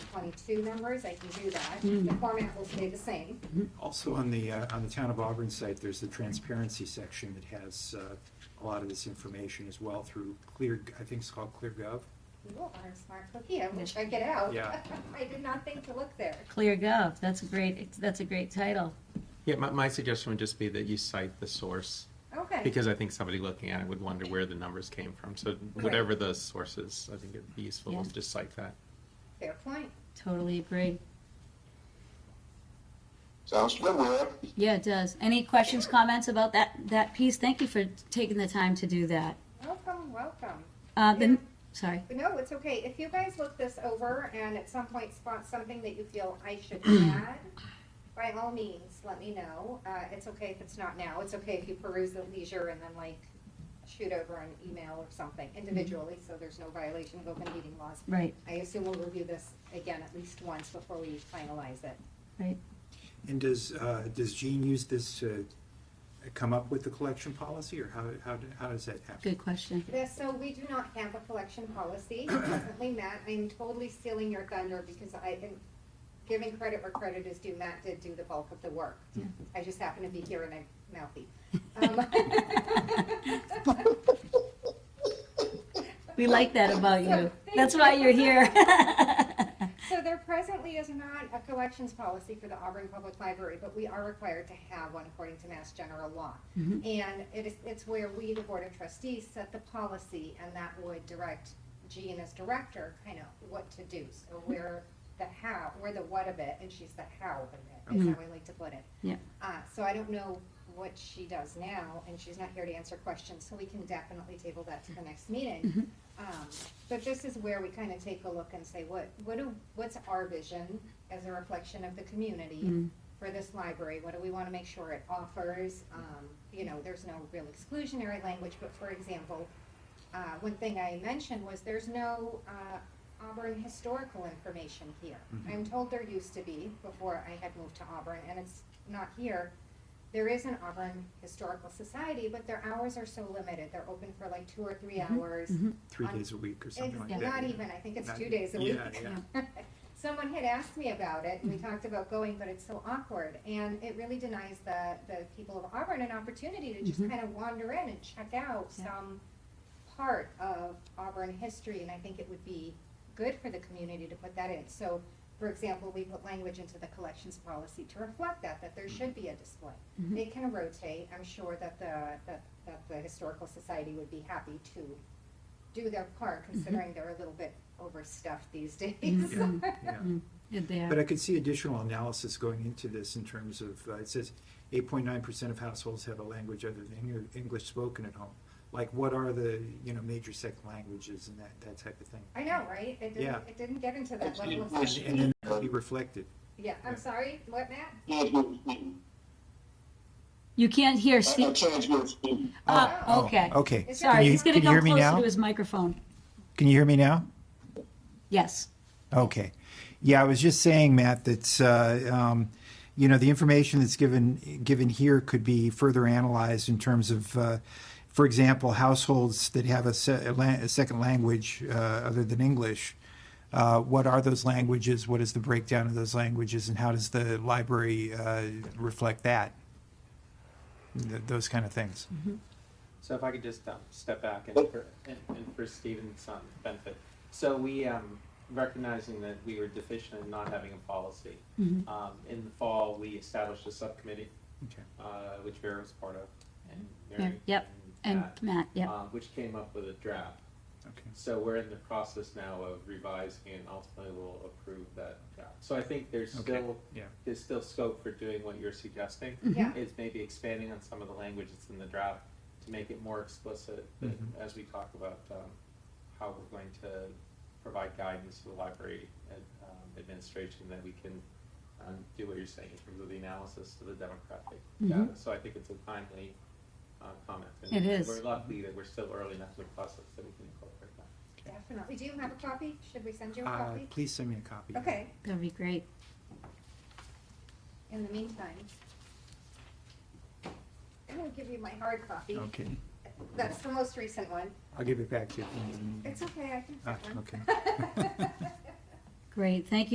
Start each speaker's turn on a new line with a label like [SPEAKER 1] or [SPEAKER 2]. [SPEAKER 1] twenty-two numbers, I can do that.
[SPEAKER 2] Mm.
[SPEAKER 1] The format will stay the same.
[SPEAKER 3] Also, on the, uh, on the Town of Auburn site, there's the transparency section that has uh, a lot of this information as well through Clear, I think it's called ClearGov.
[SPEAKER 1] You are a smart cookie, I will check it out.
[SPEAKER 3] Yeah.
[SPEAKER 1] I did not think to look there.
[SPEAKER 2] Clear Gov, that's a great, that's a great title.
[SPEAKER 4] Yeah, my, my suggestion would just be that you cite the source,
[SPEAKER 1] Okay,
[SPEAKER 4] because I think somebody looking at it would wonder where the numbers came from. So whatever the source is, I think it'd be useful
[SPEAKER 2] Yeah.
[SPEAKER 4] to just cite that.
[SPEAKER 1] fair point.
[SPEAKER 2] Totally agree.
[SPEAKER 5] Sounds good, Rob.
[SPEAKER 2] Yeah, it does. Any questions, comments about that, that piece? Thank you for taking the time to do that.
[SPEAKER 1] Welcome, welcome.
[SPEAKER 2] Uh,
[SPEAKER 1] Yeah.
[SPEAKER 2] then, sorry.
[SPEAKER 1] But no, it's okay. If you guys look this over and at some point spot something that you feel I should add, by all means, let me know. Uh, it's okay if it's not now. It's okay if you peruse at leisure and then like shoot over an email or something individually, so there's no violation of open meeting laws.
[SPEAKER 2] Right,
[SPEAKER 1] I assume we'll review this again at least once before we finalize it.
[SPEAKER 2] right.
[SPEAKER 3] And does, uh, does Gene use this to come up with the collection policy, or how, how, how does that happen?
[SPEAKER 2] Good question.
[SPEAKER 1] Yes, so we do not have a collection policy. Presently, Matt, I'm totally stealing your thunder because I am giving credit where credit is due. Matt did do the bulk of the work.
[SPEAKER 2] Yeah.
[SPEAKER 1] I just happen to be here and I'm mouthy. Um,
[SPEAKER 2] We like that about you.
[SPEAKER 1] Thank
[SPEAKER 2] That's why
[SPEAKER 1] you.
[SPEAKER 2] you're here.
[SPEAKER 1] So there presently is not a collections policy for the Auburn Public Library, but we are required to have one according to Mass General Law.
[SPEAKER 2] Mhm.
[SPEAKER 1] And it is, it's where we, the Board of Trustees, set the policy and that would direct Jean as director, kind of what to do. So we're the how, we're the what of it and she's the how of it, is
[SPEAKER 2] Mhm.
[SPEAKER 1] how I like to put it.
[SPEAKER 2] Yeah.
[SPEAKER 1] Uh, so I don't know what she does now and she's not here to answer questions, so we can definitely table that to the next meeting.
[SPEAKER 2] Mhm.
[SPEAKER 1] Um, but this is where we kind of take a look and say, what, what do, what's our vision as a reflection of the community
[SPEAKER 2] Mm.
[SPEAKER 1] for this library? What do we want to make sure it offers? Um, you know, there's no real exclusionary language, but for example, uh, one thing I mentioned was there's no, uh, Auburn historical information here.
[SPEAKER 3] Mhm.
[SPEAKER 1] I'm told there used to be before I had moved to Auburn, and it's not here. There is an Auburn Historical Society, but their hours are so limited. They're open for like two or three hours.
[SPEAKER 2] Mhm.
[SPEAKER 3] Three
[SPEAKER 1] on-
[SPEAKER 3] days a week or
[SPEAKER 1] It's
[SPEAKER 3] something like that?
[SPEAKER 1] not
[SPEAKER 3] yeah.
[SPEAKER 1] even, I think it's
[SPEAKER 3] Not-
[SPEAKER 1] two days a week.
[SPEAKER 3] yeah,
[SPEAKER 1] Someone had asked me about it, and we talked about going, but it's so awkward, and it really denies the, the people of Auburn an opportunity to just
[SPEAKER 2] Mhm.
[SPEAKER 1] kind of wander in and check out
[SPEAKER 2] Yeah.
[SPEAKER 1] some part of Auburn history, and I think it would be good for the community to put that in. So, for example, we put language into the collections policy to reflect that, that there should be a display.
[SPEAKER 2] Mhm.
[SPEAKER 1] It can rotate, I'm sure that the, that, that the Historical Society would be happy to do their part, considering they're a little bit overstuffed these days.
[SPEAKER 2] Mhm.
[SPEAKER 3] Yeah.
[SPEAKER 2] Good
[SPEAKER 3] But
[SPEAKER 2] there.
[SPEAKER 3] I could see additional analysis going into this in terms of, uh, it says eight point nine percent of households have a language other than Eng- English spoken at home. Like, what are the, you know, major second languages and that, that type of thing?
[SPEAKER 1] I know, right? It didn't,
[SPEAKER 3] Yeah.
[SPEAKER 1] it didn't get into that
[SPEAKER 5] It's
[SPEAKER 1] level of
[SPEAKER 5] English.
[SPEAKER 1] stuff.
[SPEAKER 3] And then that'll be reflected.
[SPEAKER 1] Yeah, I'm sorry, what, Matt?
[SPEAKER 5] Can't hear Steve.
[SPEAKER 2] You can't hear
[SPEAKER 5] I I
[SPEAKER 2] Steve.
[SPEAKER 5] can't hear Steve.
[SPEAKER 2] Ah,
[SPEAKER 1] Oh,
[SPEAKER 2] okay.
[SPEAKER 3] Okay.
[SPEAKER 1] It's
[SPEAKER 2] Sorry,
[SPEAKER 1] Can you-
[SPEAKER 2] he's going to
[SPEAKER 3] can you hear
[SPEAKER 2] come
[SPEAKER 3] me
[SPEAKER 2] closer
[SPEAKER 3] now?
[SPEAKER 2] to his microphone.
[SPEAKER 3] Can you hear me now?
[SPEAKER 2] Yes.
[SPEAKER 3] Okay. Yeah, I was just saying, Matt, that, uh, um, you know, the information that's given, given here could be further analyzed in terms of, uh, for example, households that have a, se- a, la- a second language uh, other than English. Uh, what are those languages? What is the breakdown of those languages, and how does the library uh, reflect that? Th- those kind of things.
[SPEAKER 4] So if I could just um, step back and for, and, and for Stephen's um, benefit. So we, um, recognizing that we were deficient in not having a policy,
[SPEAKER 2] Mhm.
[SPEAKER 4] um, in the fall, we established a subcommittee,
[SPEAKER 3] Okay.
[SPEAKER 4] uh, which Vera was part of, and
[SPEAKER 2] Yeah,
[SPEAKER 4] Mary.
[SPEAKER 2] yep, And
[SPEAKER 4] Pat,
[SPEAKER 2] Matt, yeah.
[SPEAKER 4] um, which came up with a draft.
[SPEAKER 3] Okay.
[SPEAKER 4] So we're in the process now of revising and ultimately we'll approve that draft. So I think there's
[SPEAKER 3] Okay,
[SPEAKER 4] still,
[SPEAKER 3] yeah.
[SPEAKER 4] there's still scope for doing what you're suggesting.
[SPEAKER 2] Mm-hmm.
[SPEAKER 1] Yeah.
[SPEAKER 4] Is maybe expanding on some of the language that's in the draft to make it more explicit that-
[SPEAKER 3] Mhm.
[SPEAKER 4] as we talk about um, how we're going to provide guidance to the library and, um, administration that we can um, do what you're saying in terms of the analysis of the demographic
[SPEAKER 2] Mhm.
[SPEAKER 4] data. So I think it's a timely uh, comment.
[SPEAKER 2] It
[SPEAKER 4] And
[SPEAKER 2] is.
[SPEAKER 4] We're lucky that we're still early enough in the process that we can incorporate that.
[SPEAKER 1] Definitely. Do you have a copy? Should we send you a
[SPEAKER 3] Uh,
[SPEAKER 1] copy?
[SPEAKER 3] please send me a copy.
[SPEAKER 1] Okay,
[SPEAKER 2] That'd be great.
[SPEAKER 1] in the meantime. I'm gonna give you my hard copy.
[SPEAKER 3] Okay.
[SPEAKER 1] That's the most recent one.
[SPEAKER 3] I'll give it back to you.
[SPEAKER 1] It's okay, I can
[SPEAKER 3] Ah,
[SPEAKER 1] print one.
[SPEAKER 3] okay.
[SPEAKER 2] Great. Thank you.